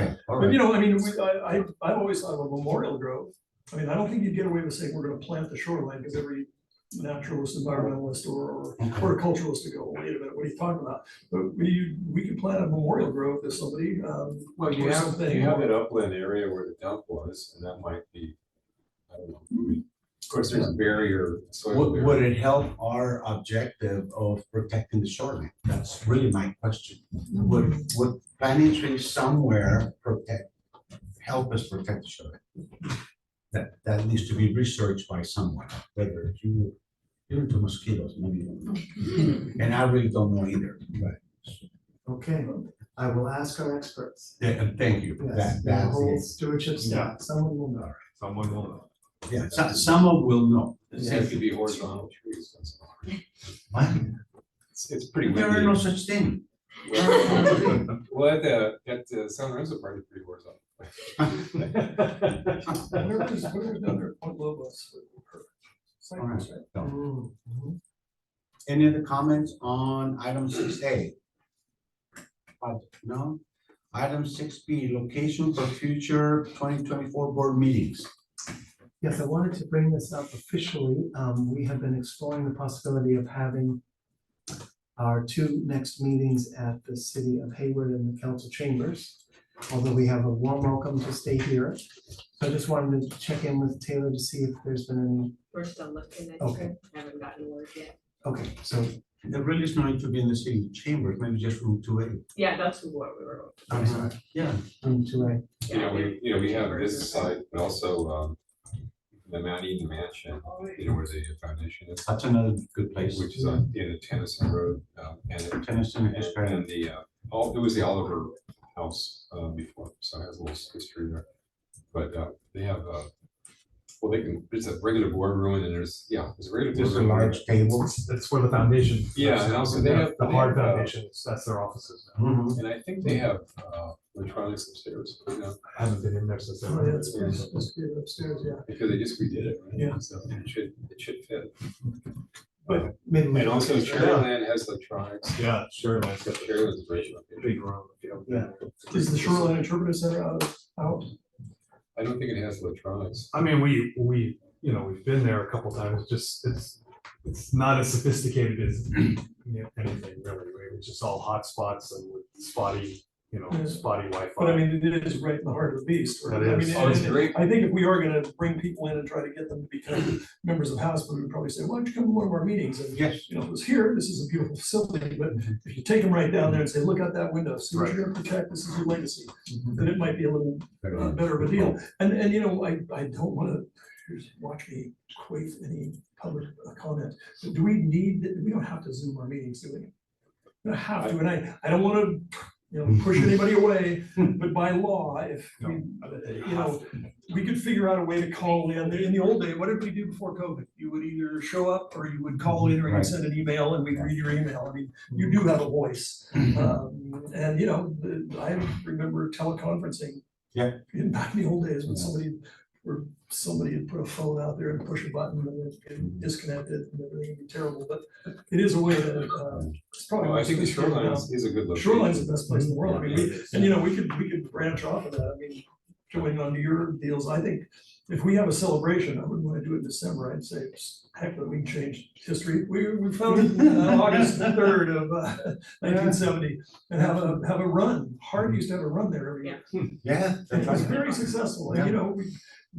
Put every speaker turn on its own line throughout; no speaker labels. all
But
right.
you know, I mean, we, I, I, I've always thought of a Memorial Grove. I mean, I don't think you'd get away with saying we're gonna plant the shoreline because every naturalist, environmentalist or, or horticulturalist to go, wait a minute, what are you talking about? But we, we could plant a Memorial Grove to somebody, um,
Well, you
or
have,
something,
you have
or-
that upland area where the dump was, and that might be, I don't know. I mean, Of course, there's a barrier, soil
Would,
barrier.
would it help our objective of protecting the shoreline? That's really my question. Would, would planting trees somewhere protect, help us protect the shoreline? That, that needs to be researched by someone, whether you, you're into mosquitoes, maybe. you don't know. And I really don't know either. Right.
Okay, I will ask our experts.
thank you. That,
Yes, that
that's
whole
it. Mm-hmm.
stewardship stuff, someone will know.
Someone will know.
Yeah, so- someone will know.
It seems to be horizontal trees. that's all.
What?
It's, it's pretty
There are no
windy.
such thing.
Well, well, at the, at the uh, San Lorenzo part, it's pretty horizontal.
Where is, where is down there, Point Lobos? Cypress, right?
All right.
Mm,
Mm-hmm.
mhm.
Any other comments on item six A? No? Item six B, location for future twenty twenty-four board meetings.
Yes, I wanted to bring this up officially. Um, we have been exploring the possibility of having our two next meetings at the city of Hayward and the council chambers, although we have a warm welcome to stay here. So I just wanted to check in with Taylor to see if there's been
We're still looking at
Okay.
it, haven't gotten word yet.
any, okay, so
There really is no need to be in the city chambers, maybe just room two A.
Yeah, that's what we were.
I'm sorry,
Yeah.
room two A.
You know, we, you know, we have this
Yeah.
site, but also, um, the Mount Eden Mansion, you know, where the foundation is,
That's another good place.
which is on, you know, Tennyson Road, um, and
Tennyson
And
is very-
and the, uh, all, it was the Oliver House, uh, before, so it has a little history there. But, uh, they have, uh, well, they can, there's a regular boardroom and then there's, yeah, there's a regular
There's a
boardroom.
large table.
That's where the foundation.
Yeah, and also they have-
The
they
hard
have, uh,
foundations, that's their offices now.
Mhm.
And I think they have, uh, electronics upstairs, you know,
I haven't been in there since.
Oh, yeah, it's
then.
supposed supposed to be upstairs, yeah.
because they just redid it, right?
Yeah.
So it should, it should fit.
Maybe we-
And also Cherryland has electronics,
Yeah, sure, nice. got the
Cherryland's a great location.
Big room. if you don't-
Yeah.
Is the Shoreline Interpretive Center out, of- out?
I don't think it has electronics.
I mean, we, we, you know, we've been there a couple times, just, it's, it's not as sophisticated as you know, anything really, right? It's just all hotspots and with spotty, you know, spotty Wi-Fi.
Mm. But I mean, it is right in the heart of the beast. right?
That
I
is.
mean,
Oh, it's
and-
great.
I think if we are gonna bring people in and try to get them to become members of House, we would probably say, why don't you come to one of our meetings? And,
Yes.
you know, it was here, this is a beautiful facility, but if you take them right down there and say, look out that window, see what you're gonna protect, this is your legacy, then it might be a little
Very
uh,
good.
better of a deal. And, and you know, I, I don't wanna, watch me quaff any public comment, but do we need, we don't have to Zoom our meetings, do we? We don't have to, and I, I don't wanna, you know, push anybody away, but by law, if we, uh, you know, we could figure out a way to call in, in the old day, what did we do before COVID? You would either show up or you would call in or you'd
Right.
send an email and we'd read your email, I mean, you do have a voice.
Mm-hmm.
Mm-hmm.
Um, and you know, the- I remember teleconferencing.
Yeah.
In back in the old days when
Yeah.
somebody, or somebody had put a phone out there and push a button and it-
Mm-hmm.
it disconnected and everything would be terrible, but it is a way that, uh, it's probably.
Oh, I think the
sophisticated now.
shoreline is is a good location.
Shoreline's the best place in the world, I mean, we, and you know, we could, we could branch off of that, I mean, going on to your deals, I think. If we have a celebration, I wouldn't wanna do it in December, I'd say, heck, we can change history, we, we founded uh, August third of uh, nineteen seventy. And have a, have a run, Hard used to have a run there every year,
Yeah.
and
that's
it was
right.
very successful, and you know, we,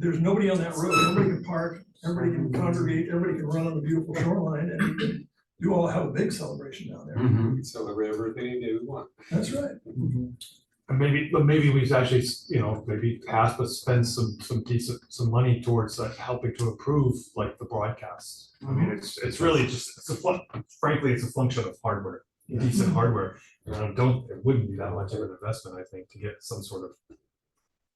there's nobody on that road, everybody can park, everybody can congregate, everybody can run on the beautiful shoreline, and we can do all have a big celebration down there,
Mhm.
We can celebrate everything that we want.
that's right.
And maybe, but maybe we actually, you know, maybe pass, but spend some, some decent, some money towards like helping to improve like the broadcast. I mean, it's, it's really just, it's a, fun- frankly, it's a function of hardware,
Yeah.
decent hardware. And I don't, it wouldn't be that much of an investment, I think, to get some sort of,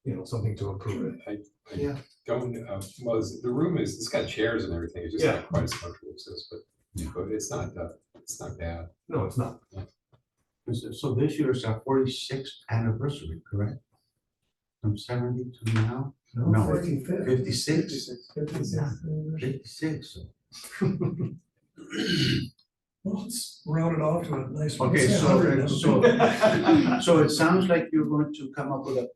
you know, something to improve it.
I, I
Yeah.
don't, uh, well, it's- the room is, it's got chairs and everything, it's just
Yeah.
not quite as comfortable as this, but,
Yeah.
but it's not, uh, it's not bad.
No, it's not.
So this year is our forty-sixth anniversary, correct? From seventy to now, No.
Fifty-fifth.
fifty-six,
Fifty-sixth.
fifty-six.
Well, let's round it off to a nice. one.
Okay,
Let's say
so,
100 now.
so, so it sounds like you're going to come up with a